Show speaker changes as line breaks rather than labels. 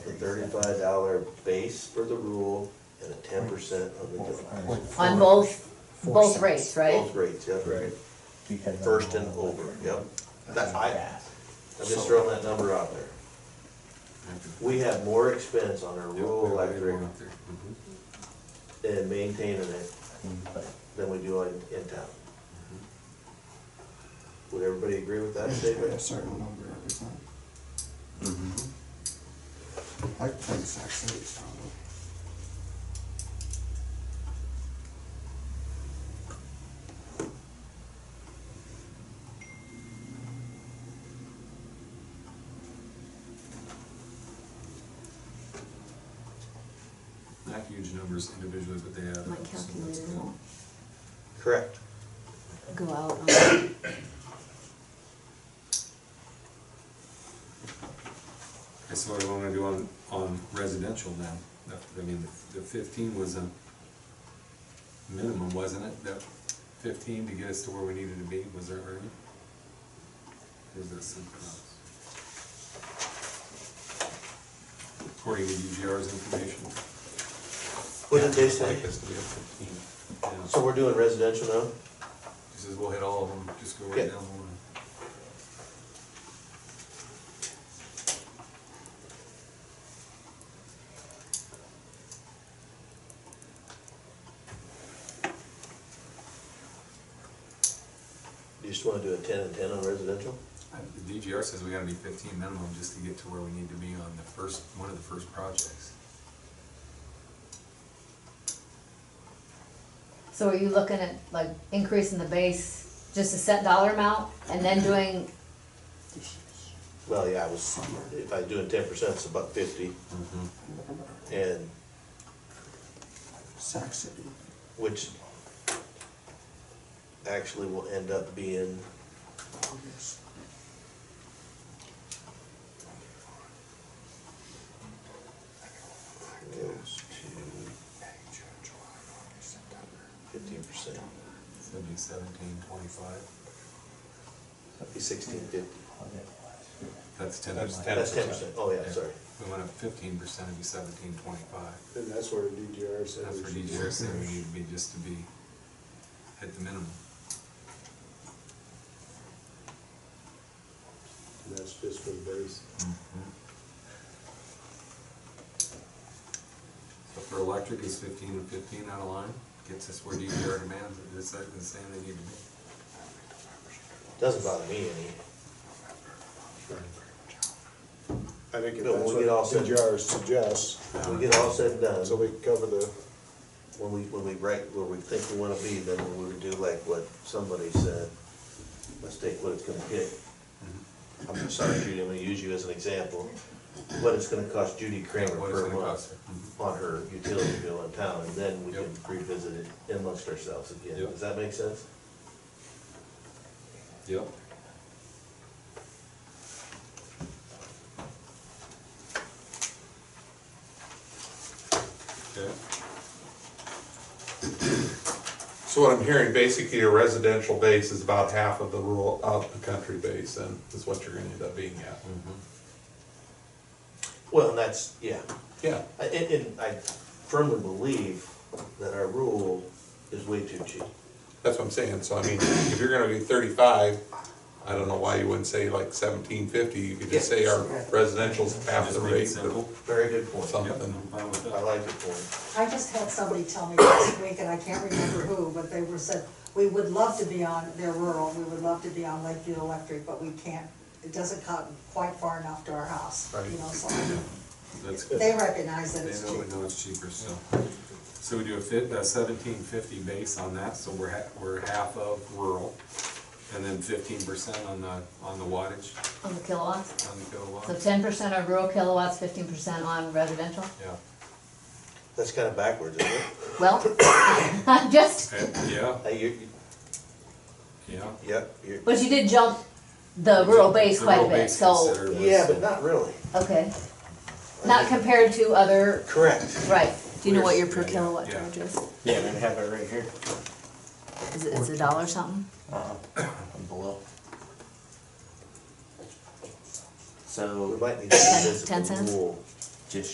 thirty-five dollar base for the rule and a ten percent of the
Like
donut.
four-
On both,
four
both
cents.
rates, right?
Both rates, yep, right,
We had it
first
on
and
all
over, yep. That, I,
Yeah.
I'm just throwing that number out there. We have more expense on our rural electric and maintaining it
Mm, but
than we do in, in town. Would everybody agree with that
A
statement?
certain number every time. I play sax eight, probably.
Not huge numbers individually, but they add up.
My
so that's
calculator
good.
won't
Correct.
go out on,
Okay, so what do I wanna do on, on residential now? That- I mean, the fifteen was a minimum, wasn't it? That fifteen to get us to where we needed to be, was that right? Or Is that something else? According to UGR's information.
What did they say?
Like us to be at fifteen.
So
Yeah.
we're doing residential now?
He says we'll hit all of them, just go
Yeah.
right down the line.
You just wanna do a ten and ten on residential?
Uh, The DGR says we gotta be fifteen minimum just to get to where we need to be on the first, one of the first projects.
so are you looking at like increasing the base, just a set dollar amount and then doing,
Well, yeah, I was, if I do a ten percent, it's about fifty, and,
Sax eight.
which actually will end up being,
August.
goes to
May, June, July, August, September.
fifteen percent,
So it'd be seventeen twenty-five,
be sixteen fifty.
I'll get the last.
that's ten
That's
percent.
That's ten percent, oh yeah, sorry.
We went up fifteen percent, it'd be seventeen twenty-five.
And that's where DGR said.
That's
we
where
should
DGR
be.
said we need to be just to be, hit the minimum.
And that's just for the base.
Mm-hmm.
So for electric is fifteen and fifteen out of line, gets us where DGR demands, it. it's like the same they need to be.
Doesn't bother me any.
I think if
No,
that's
we'll get all
what
set.
DGR suggests,
When we get all said and done,
so we cover the,
when we, when we write where we think we wanna be, then we would do like what somebody said, let's take what it's gonna get. I'm sorry, Judy, I'm gonna use you as an example, what it's gonna cost Judy Kramer
What it's
per
gonna cost
month
her. Mm-hmm.
on her utility bill in town, and then we
Yep.
can revisit it amongst ourselves again.
Yep.
Does that make sense?
Yep. Okay,
So what I'm hearing, basically, your residential base is about half of the rural, of the country base, and is what you're gonna end up being at.
Well, and that's, yeah,
Yeah.
I- and, and I firmly believe that our rule is way too cheap.
That's what I'm saying, so I mean, if you're gonna be thirty-five, I don't know why you wouldn't say like seventeen fifty, you could just say our residential's half the
just make it
rate, or
simple.
Very good point.
Some-
Yep, I'm fine with
I
that.
like your point.
I just had somebody tell me last week, and I can't remember who, but they were said, we would love to be on, they're rural, we would love to be on Lakeview Electric, but we can't, it doesn't come quite far enough to our house, you
Right.
know, so
That's good.
they recognize that it's
They know, we
cheap.
know it's cheaper still. So we do a fif, a seventeen fifty base on that, so we're ha, we're half of rural, and then fifteen percent on the, on the wattage,
on the kilowatts?
on the
So
kilowatt.
ten percent on rural kilowatts, fifteen percent on residential?
Yeah,
That's kinda backwards, isn't it?
Well, I'm just,
okay, yeah,
Hey, you, you-
yeah.
yep, you're.
but you did jump the rural base
The
quite a
rural
bit,
base
so,
considered was-
Yeah, but not really.
okay. Not compared to other,
Correct.
right, do you know what your
Where's-
per kilowatt
yeah.
charge is?
Yeah, they have it right here,
Is it, it's a dollar something?
on below.
We
So,
might need to revisit
Ten
the
cents?
rule